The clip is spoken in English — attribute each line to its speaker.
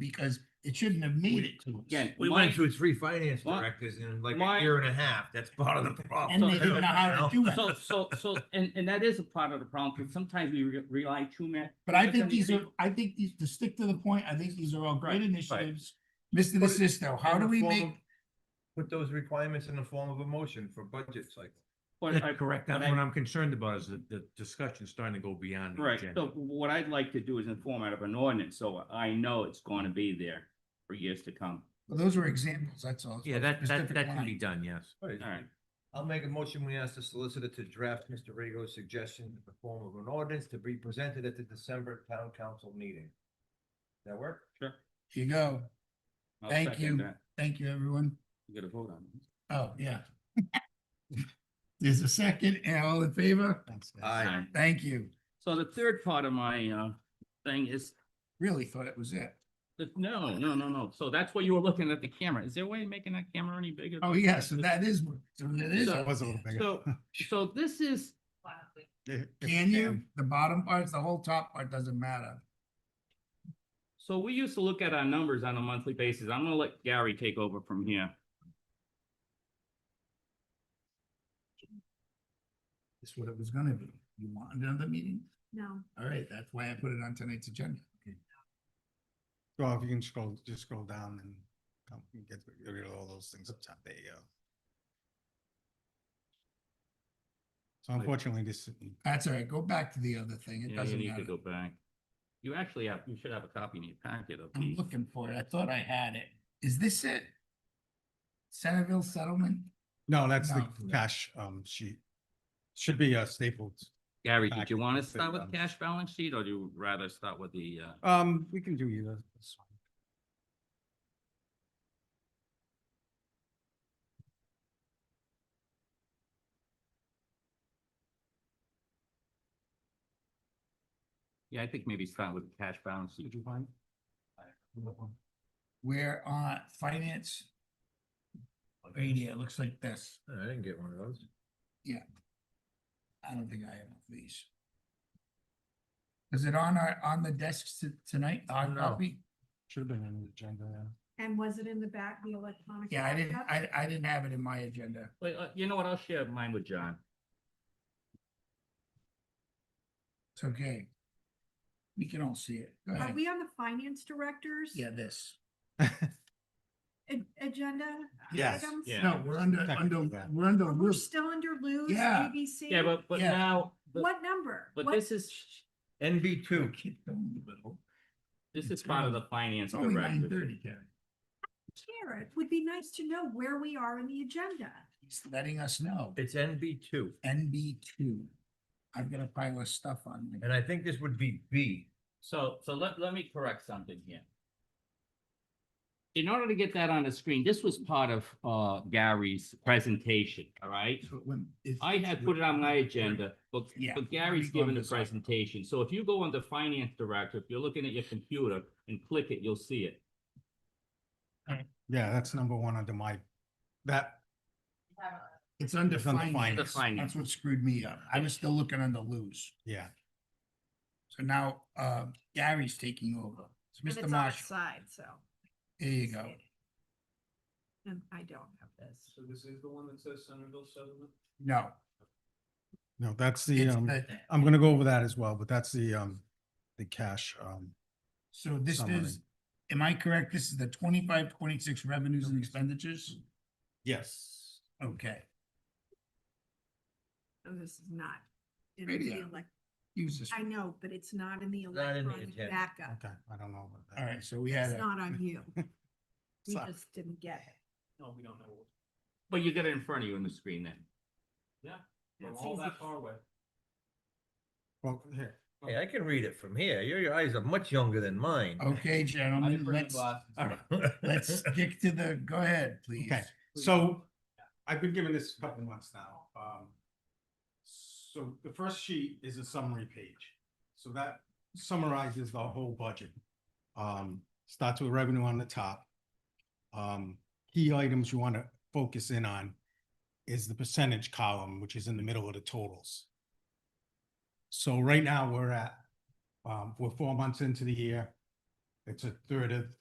Speaker 1: because it shouldn't have made it to us.
Speaker 2: Again,
Speaker 3: We
Speaker 2: my-
Speaker 3: went through three finance
Speaker 2: My-
Speaker 3: directors in like
Speaker 2: my-
Speaker 3: a year and a half. That's part of the problem.
Speaker 1: And they didn't know how to do
Speaker 2: So,
Speaker 1: it.
Speaker 2: so, so, and, and that is a part of the problem, because sometimes we re- rely too much.
Speaker 1: But I think these are, I think these, to stick to the point, I think these are all great initiatives. Mr.
Speaker 3: Put it
Speaker 1: DeSisto, how
Speaker 3: In
Speaker 1: do
Speaker 3: the
Speaker 1: we
Speaker 3: form
Speaker 1: make,
Speaker 3: of- Put those requirements in the form of a motion for budget cycle.
Speaker 2: But I-
Speaker 4: That's correct.
Speaker 2: but
Speaker 4: That's
Speaker 2: I-
Speaker 4: what I'm concerned about is that the discussion's starting to go beyond. the
Speaker 2: Right,
Speaker 4: agenda.
Speaker 2: so what I'd like to do is in format of an ordinance, so I know it's gonna be there for years to come.
Speaker 1: well, those were examples, that's all.
Speaker 4: Yeah, that, that,
Speaker 1: Specific
Speaker 4: that can
Speaker 1: line.
Speaker 4: be done, yes.
Speaker 3: Right.
Speaker 2: All right,
Speaker 3: I'll make a motion. We ask the solicitor to draft Mr. Rago's suggestion in the form of an ordinance to be presented at the December town council meeting. Does That work?
Speaker 2: sure.
Speaker 1: Here you go.
Speaker 2: I'll
Speaker 1: Thank
Speaker 2: second
Speaker 1: you.
Speaker 2: that.
Speaker 1: Thank you, everyone.
Speaker 2: You gotta vote on it.
Speaker 1: Oh, yeah. There's a second, and all in favor?
Speaker 2: All right.
Speaker 1: Thank you.
Speaker 2: So the third part of my, uh, thing is,
Speaker 1: Really thought it was it.
Speaker 2: the- no, no, no, no, so that's what you were looking at the camera, is there a way of making that camera any bigger?
Speaker 1: Oh, yeah, so that is, what- so that is.
Speaker 2: So-
Speaker 1: what
Speaker 5: was a
Speaker 1: it
Speaker 5: little
Speaker 1: is.
Speaker 5: bigger.
Speaker 2: So, so this is,
Speaker 5: If- if
Speaker 1: Can you? The bottom part, the whole top part doesn't matter.
Speaker 2: So we used to look at our numbers on a monthly basis. I'm gonna let Gary take over from here.
Speaker 1: That's what it was gonna be. You want another meeting?
Speaker 6: No.
Speaker 1: All right, that's why I put it on tonight's agenda.
Speaker 5: Well, if you can scroll, just scroll down and come and get rid of all those things up top. There you go. So unfortunately, this,
Speaker 1: That's all right. Go back to the other thing. It
Speaker 2: Yeah, you
Speaker 1: doesn't
Speaker 2: need to
Speaker 1: matter.
Speaker 2: go back. You actually have, you should have a copy in your packet of
Speaker 1: I'm
Speaker 2: these.
Speaker 1: looking for it. I thought I had it. Is this it? Centerville settlement?
Speaker 5: no, that's the
Speaker 1: No.
Speaker 5: cash um sheet. Should be uh stapled.
Speaker 2: Gary, did you
Speaker 5: packet
Speaker 2: wanna
Speaker 5: with the
Speaker 2: start with
Speaker 5: numbers.
Speaker 2: cash balance sheet or do you rather start with the, uh?
Speaker 5: Um, we can do either. That's fine.
Speaker 2: Yeah, I think maybe start with the cash balance sheet.
Speaker 5: you find?
Speaker 1: We're on uh, finance. Right here, it looks like this.
Speaker 3: I didn't get one of those.
Speaker 1: I don't think I have these. Is it on our, on the desks t- tonight, on
Speaker 5: No.
Speaker 1: copy?
Speaker 5: Should have been on the agenda. yeah.
Speaker 6: And was it in the back, the electronic?
Speaker 1: Yeah, I didn't,
Speaker 6: backup?
Speaker 1: I, I didn't have it in my agenda.
Speaker 2: Wait, uh, you know what? I'll share mine with John.
Speaker 1: It's okay. We can all see it. Go
Speaker 6: Are
Speaker 1: ahead.
Speaker 6: we on the finance director's?
Speaker 1: Yeah, this.
Speaker 6: a- Agenda?
Speaker 5: Yes,
Speaker 6: items?
Speaker 2: yeah.
Speaker 1: No, we're under,
Speaker 5: Technically
Speaker 1: under,
Speaker 5: that.
Speaker 1: we're under,
Speaker 6: We're
Speaker 1: rules.
Speaker 6: still under Lou's
Speaker 1: Yeah.
Speaker 6: ABC?
Speaker 2: Yeah, but, but
Speaker 1: Yeah.
Speaker 2: now, but-
Speaker 6: What number?
Speaker 2: but
Speaker 6: What-
Speaker 2: this is,
Speaker 3: NB two.
Speaker 2: this is part of the finance
Speaker 1: it's only nine
Speaker 2: directive.
Speaker 1: thirty, Kevin.
Speaker 6: Karen, it would be nice to know where we are in the agenda.
Speaker 1: He's letting us know.
Speaker 3: It's NB two,
Speaker 1: NB two. I've got a pile of stuff on me.
Speaker 3: and I think this would be B.
Speaker 2: So, so let, let me correct something here. In order to get that on the screen, this was part of, uh, Gary's presentation, all right?
Speaker 1: So when- if-
Speaker 2: I had put it on my agenda, but,
Speaker 1: Yeah,
Speaker 2: but
Speaker 1: let
Speaker 2: Gary's
Speaker 1: me go on
Speaker 2: given the
Speaker 1: this one.
Speaker 2: presentation. So if you go on the finance director, if you're looking at your computer and click it, you'll see it.
Speaker 5: Yeah, that's number one under my, that,
Speaker 1: It's under
Speaker 5: It's under
Speaker 1: finance.
Speaker 5: finance.
Speaker 1: That's what screwed me up. I was still looking under lose.
Speaker 5: yeah,
Speaker 1: So now, uh, Gary's taking over. So
Speaker 6: And
Speaker 1: Mr.
Speaker 6: it's on our
Speaker 1: Marshall,
Speaker 6: Side, so.
Speaker 1: there you go.
Speaker 6: And I don't have this.
Speaker 1: No,
Speaker 5: no, that's the
Speaker 1: it's
Speaker 5: um.
Speaker 1: the,
Speaker 5: I'm gonna go over that as well, but that's the, um, the cash, um,
Speaker 1: so this
Speaker 5: summary.
Speaker 1: is, am I correct? This is the twenty-five, twenty-six revenues and expenditures?
Speaker 5: yes.
Speaker 1: Okay,
Speaker 6: Oh, This is not. in the
Speaker 1: Radio.
Speaker 6: elec-
Speaker 1: use this.
Speaker 6: I know, but it's not in the
Speaker 3: Not in the
Speaker 6: electronic
Speaker 3: agenda.
Speaker 6: backup.
Speaker 5: Okay, I don't know. about that.
Speaker 1: All right, so we had
Speaker 6: It's
Speaker 1: a,
Speaker 6: not on you. We
Speaker 5: Sorry.
Speaker 6: just didn't get it.
Speaker 2: No, we don't know. But you got it in front of you on the screen then. Yeah,
Speaker 6: That's all easy. that far
Speaker 2: away.
Speaker 5: Well, here,
Speaker 3: Hey, I can read it from here. Your, your eyes are much younger than mine.
Speaker 1: okay, gentlemen, let's, let's stick to the, go ahead, please.
Speaker 5: okay, so I've been given this a couple months now, um. So the first sheet is a summary page, so that summarizes the whole budget. Um, starts with revenue on the top. Um, key items you wanna focus in on is the percentage column, which is in the middle of the totals. So right now, we're at, um, we're four months into the year. It's a third of